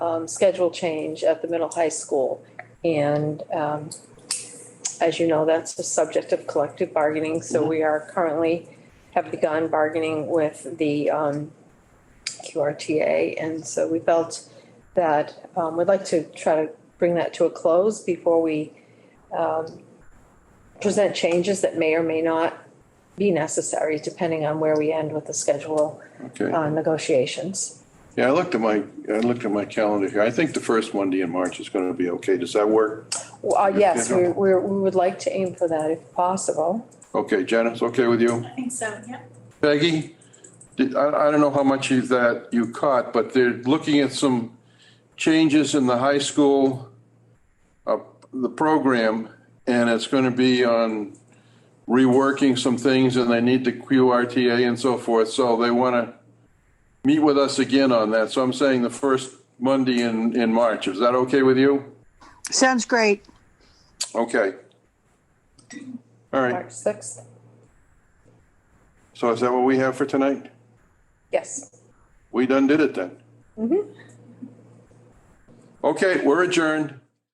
um, schedule change at the middle high school. And um, as you know, that's the subject of collective bargaining. So we are currently, have begun bargaining with the um, QRTA. And so we felt that um, we'd like to try to bring that to a close before we um, present changes that may or may not be necessary, depending on where we end with the schedule Okay. uh, negotiations. Yeah, I looked at my, I looked at my calendar here. I think the first Monday in March is going to be okay. Does that work? Well, uh, Yes, we we're- we would like to aim for that if possible. Okay, Janice, okay with you? I think so, yeah. Peggy, did- I, I don't know how much of that you caught, but they're looking at some changes in the high school, uh, the program, and it's going to be on reworking some things and they need the QRTA and so forth. So they want to meet with us again on that. So I'm saying the first Monday in, in March. Is that okay with you? Sounds great. Okay. All right. March 6th? So is that what we have for tonight? Yes. We done did it then. Okay, we're adjourned.